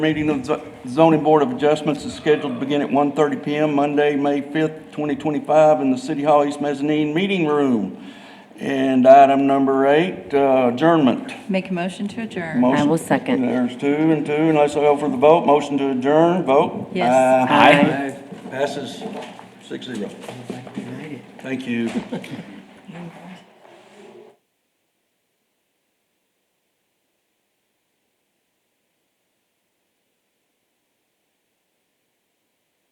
Meeting of the zoning board of adjustments is scheduled to begin at 1:30 PM Monday, May 5th, 2025, in the City Hall East Mezzanine Meeting Room. And item number eight, uh, adjournment. Make a motion to adjourn. Motion- will second. There's two and two, unless I go for the vote, motion to adjourn, vote. Yes. Aye. Aye. Passes six zero. Thank you.